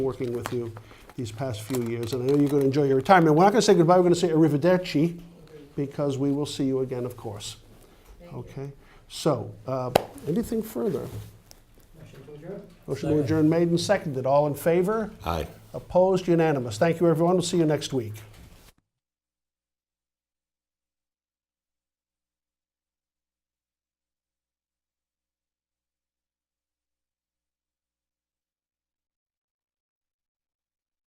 working with you these past few years, and I know you're going to enjoy your retirement. We're not going to say goodbye, we're going to say arrivederci, because we will see you again, of course. Okay? So, uh, anything further? Motion to adjourn made and seconded. All in favor? Aye. Opposed? Unanimous. Thank you, everyone. We'll see you next week.